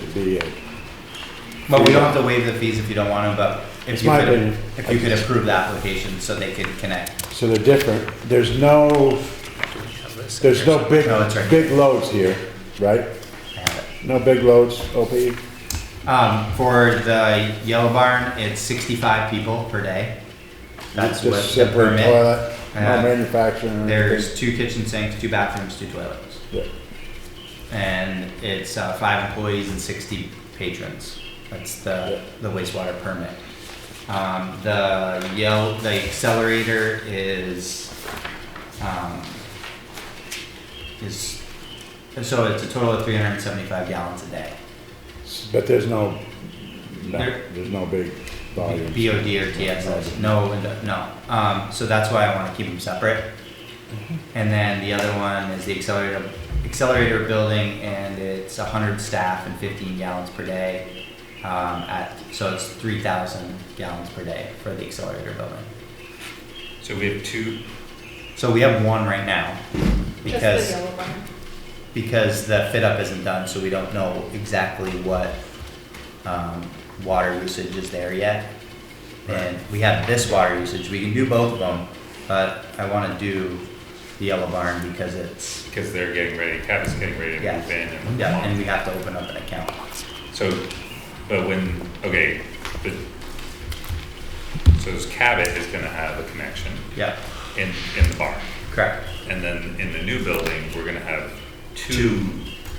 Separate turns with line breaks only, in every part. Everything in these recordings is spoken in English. should be it.
Well, we don't have to waive the fees if you don't want to, but
It's
if you
my
could,
opinion.
if you could approve the application so they could connect.
So they're different. There's no, there's no big,
No, Oh, that's right.
big loads here, right?
I have
No big loads, E, OP?
it. Um, for the Yellow Barn, it's sixty-five people per day. That's what
Just
the
simply
permit.
toilet,
Uh,
No manufacturing. or anything.
There's two kitchen sinks, two bathrooms, two toilets.
Yeah.
And it's, uh, five employees and sixty patrons. That's the, the wastewater permit. Um, the Yell, the accelerator is, um, is, so it's a total of three hundred and seventy-five gallons a day.
But there's no, no,
There-
there's no big volume.
BOD or TSS, no, and- no. Um, so that's why I wanna keep them separate. And then the other one is the accelerator, accelerator building and it's hundred staff and fifteen gallons per day. Um, at, so it's three thousand gallons per day for the accelerator building.
So we have two,
So we have one right now
Just the
because,
yellow one.
because the fit up isn't done, so we don't know exactly what, um, water usage is there yet. And we have this water usage, we can do both of them, but I wanna do the yellow barn because it's,
because they're getting ready, Cabot's getting ready to
Yeah.
move in and.
yeah, and we have to open up an account.
So, but when, okay, but, so this Cabot is gonna have a connection
Yeah,
in, in the barn.
correct,
And then in the new building, we're gonna have two,
Two.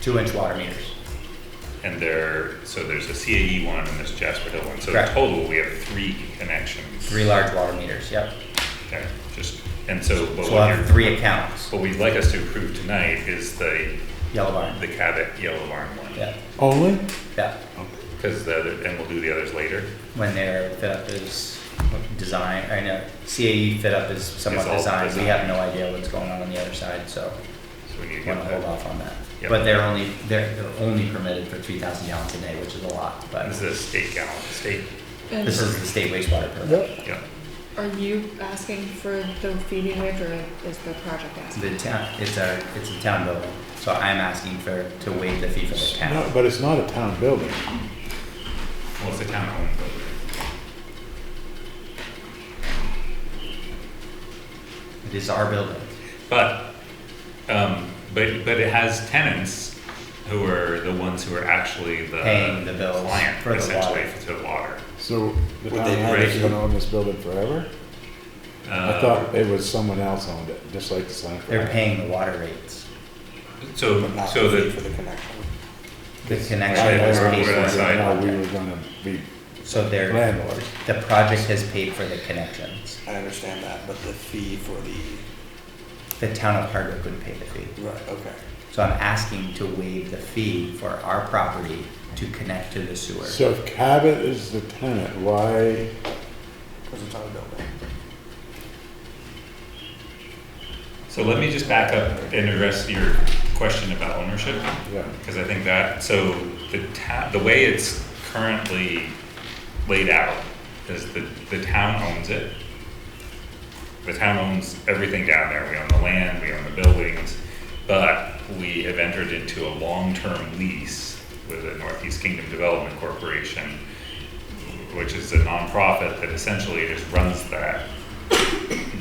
two inch water meters,
and there, so there's a CAE one and there's a Jasper Hill one. So in
Correct.
total, we have three connections.
three large water meters, yep.
Okay, just, and so, but
So we'll
what
have
you're,
three accounts,
what we'd like us to approve tonight is the,
yellow barn,
the Cabot yellow barn one.
yeah,
Only?
yeah.
Because the other, and we'll do the others later.
when their fit up is design, I know CAE fit up is somewhat
It's all
designed, we
designed.
have no idea what's going on on the other side, so
So we need to
wanna
get
hold
that.
off on that.
Yep.
But they're only, they're, they're only permitted for three thousand gallons a day, which is a lot, but
This is a state gallon, state,
this
And
is the state wastewater permit.
Yep.
yeah.
are you asking for the feeding waiver or is the project asking?
The town, it's a, it's a town building, so I'm asking for, to waive the fee for the
No,
town.
but it's not a town building.
Well, it's a town home building.
It is our building,
But, um, but, but it has tenants who are the ones who are actually the.
Paying the bills
Client,
for the
essentially,
water.
for the water.
So the
Would
town
they
is
break-
gonna own this building forever? I
Uh,
thought it was someone else owned it, just like the Slam.
they're paying the water rates,
Um, So,
But not
so
the fee
the,
for the connection.
the
I
connection
know,
is
we're
paid
gonna
for.
decide.
how we were gonna be
So they're,
landlords.
the project has paid for the connections.
I understand that, but the fee for the,
The town of Hardwick would pay the fee.
right, okay.
So I'm asking to waive the fee for our property to connect to the sewer.
So if Cabot is the tenant, why,
Because it's on a building.
so let me just back up and address your question about ownership.
yeah,
Because I think that, so the ta, the way it's currently laid out is the, the town owns it. The town owns everything down there. We own the land, we own the buildings. But we have entered into a long-term lease with the Northeast Kingdom Development Corporation, which is a nonprofit that essentially just runs that.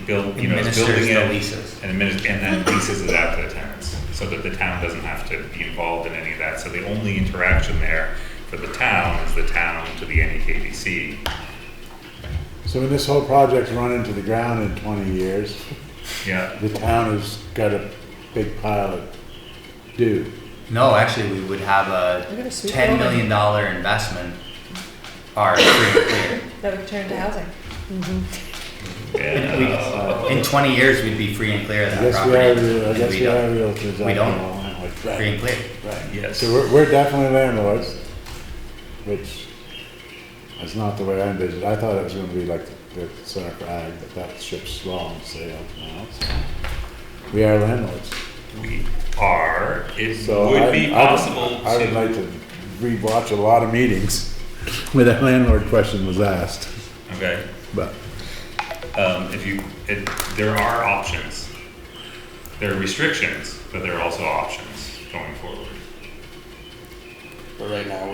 Build, you know, is
Administers
building
the
it
leases.
and adminis- and then leases it out to the tenants, so that the town doesn't have to be involved in any of that. So the only interaction there for the town is the town to the E NEKDC.
so when this whole project's run into the ground in twenty years,
Yeah,
the town has got a big pile of due.
No, actually, we would have
We're
a
gonna sweep
ten
all
million dollar investment. Our free and
That would turn to housing.
and, uh,
clear. In twenty years, we'd be free and clear of
I
that
guess we are,
property.
real- I
and
guess
we
we are
don't.
realtors.
we
after
don't.
all, aren't we?
Right.
Free and clear.
Right.
yes.
So we're, we're definitely landlords, which is not the way I envisioned. it. I thought it was gonna be like the the Center for Ag, but that ship's long sailed now, so. We are landlords.
We are, it
So I-
would be
I would-
possible
I would like
to,
to rewatch a lot of meetings where that landlord question was asked,
okay,
but
um, if you, it, there are options. There are restrictions, but there are also options going forward.
But right now,